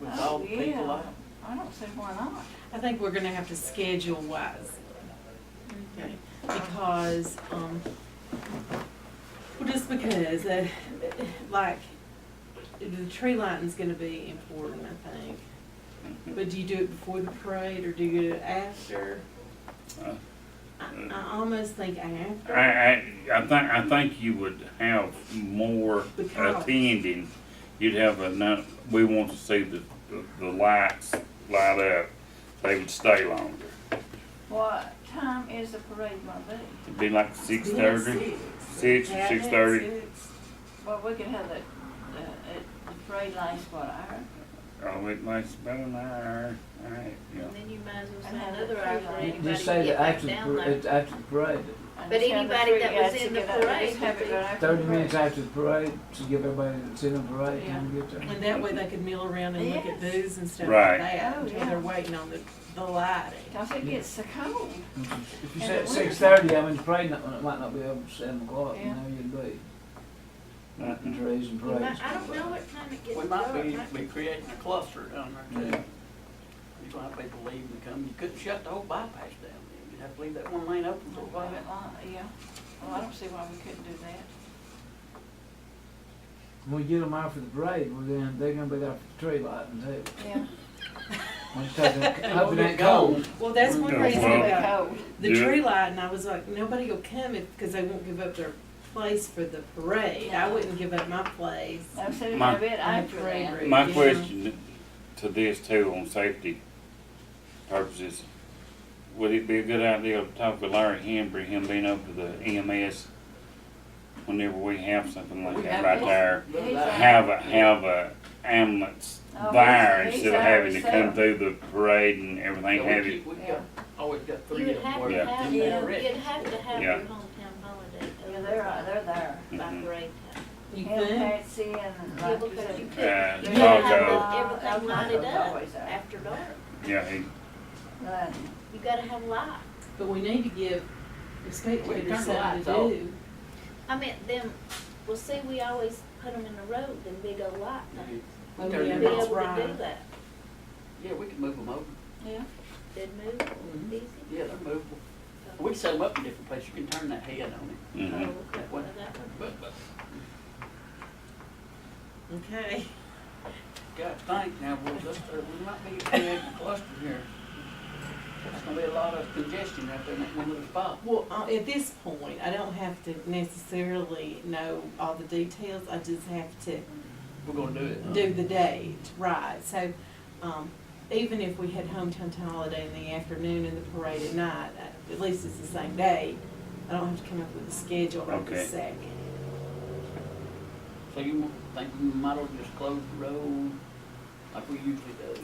Oh, help people Yeah. out. I don't see why not. I think we're gonna have to schedule wise. Okay, because, um, well, just because, uh, like, the tree lighting's gonna be important, I think. But do you do it before the parade or do you do it after? Uh. I, I almost think after. I, I, I think, I think you would have more Because- attending. You'd have enough, we want to see the, the- the lights light up. They would stay longer. What time is the parade gonna be? It'd be like six thirty. Six. Six, Yeah, I think 6:30. six. Well, we could have the, the, it- the parade last what hour? Oh, it lasts about an hour. All right, yeah. And then you might as well And say have another the hour tree for line. anybody Just to say get that back after, the down par- later. it's after the parade, And But just have the anybody free- that yeah, was just in the get out there. parade Just have it would be right after the thirty minutes parade. after the parade, to give everybody that's in the parade time to get there. And that way they could mill around and look at Yes. booths and stuff Right. like that, Oh, until yeah. they're waiting on the, the lighting. Cause it gets so cold. If And you said the winter- six thirty, I mean, the parade not, it might not be over till seven o'clock, you Yeah. know, you'd be. Mhm. And trees and You might- parades. I don't know what time it gets We dark. might be, be creating a cluster down there too. Yeah. You might have people leaving and come, you couldn't shut the whole bypass down, you'd have to leave that one lane open for a Well, while. yeah, well, I don't see why we couldn't do that. When we get them out for the parade, well then, they're gonna be there for the tree lighting too. Yeah. When it's taking, It'll hope it get ain't cold. Well, that's one Yeah, reason well- about Cold. the Yeah. tree light, and I was like, nobody will come if, because they won't give up their place for the parade. I No. wouldn't give up my place. I'm sitting My- in bed after parade that. route, My you know. question to this too, on safety purposes, would it be a good idea to talk with Larry Henry, him being up to the EMS? Whenever we have something like that right there, He's out. have a, have a ambulance Oh, there he's- instead he's of having to ourselves. come through the parade and everything, have it. We've Yeah. got, always got You three would of them have working to Yeah. have, in that your- wreck. you'd have to have Yeah. your hometown holiday. Yeah, they're, out- they're there. Mm-hmm. By Mhm. parade time. You Hell, think? Patsy and Yeah, like you because you said. could, Uh, you Yeah. could have Taco. the- everything lighted Taco's up always there. after dark. Yeah, he, Right. You gotta have light. But we need to give the We spectators turn the something lights to off. do. I meant them, well, see, we always put them in the road, them big old light things. Oh, Turn yeah, You'd them be off. that's able to do right. that. Yeah, we can move them over, Yeah, They'd move easy. yeah, they're movable. We can set them up in different places, you can turn that head on it. Oh, mhm. okay, well, that one. But, but, Okay. God, think now, we'll just, uh, we might be creating a cluster here. There's gonna be a lot of congestion out there in that one little spot. Well, uh, at this point, I don't have to necessarily know all the details. I just have to We're gonna do it. do the date, right, so, um, even if we had hometown holiday in the afternoon and the parade at night, at least it's the same day, I don't have to come up with a schedule right Okay. this second. So you think we might as well just close the road like we usually do?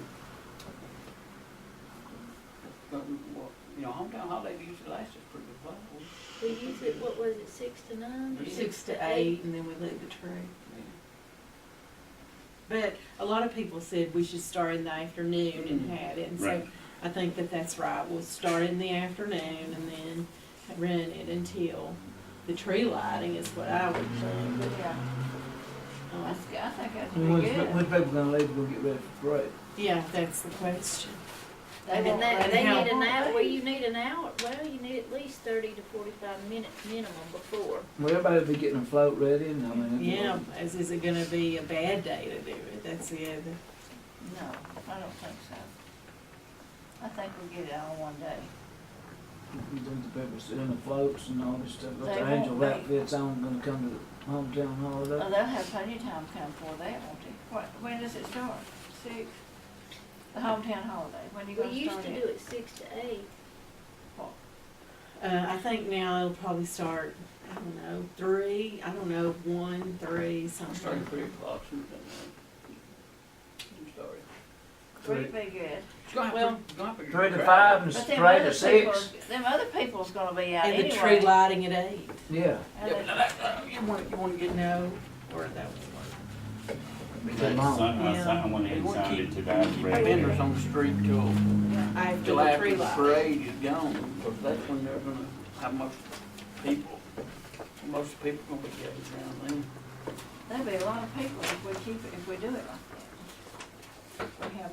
But we, well, you know, hometown holiday usually lasts us pretty good while. We use it, what was it, six to nine? or Six Six to eight, and then we leave the tree. But a lot of people said we should start in the afternoon and have it, and so Mm-hmm. Right. I think that that's right, we'll start in the afternoon and then run it until the tree lighting is what I would think, but, yeah. um, That's good. I think that's When's, pretty good. when's people gonna leave to go get ready for the parade? yeah, that's the question. I mean, won't they, let they it need happen. an hour, well, you need an hour, well, you need at least thirty to forty-five minutes minimum before. Well, everybody'll be getting a float ready and, I mean. it'll- Yeah, is, is it gonna be a bad day to do it? That's the other. No, I don't think so. I think we'll get it all one day. You think the people sitting the floats and all this stuff, got They their won't Uh, angel be. outfits on, gonna come to the hometown holiday? Well, Oh, they'll have plenty of time to come for that, won't they? What, when does it start? Six? The hometown holiday, when you We gonna used start to do it? it six to eight. Uh, I think now it'll probably start, I don't know, three, I don't know, one, three, We Started something. at three o'clock, something like that. Sorry. Three'd be good. It's gonna Well, have, it's gonna have. Three to five and But s- them three other to people, six, them other people's gonna be out And anyway. the tree lighting at eight, And yeah. Yeah, but they- now that, uh, you wanna, you wanna get, you know, or that was Be But too long. some- uh, some- I went you and wanna signed keep, it keep today. vendors on the street till, one. After till the after tree the lighting. parade is gone, because that's when they're gonna have most people. Most people gonna be gathered around then. There'll be a lot of people if we keep it, if we do it like that. We have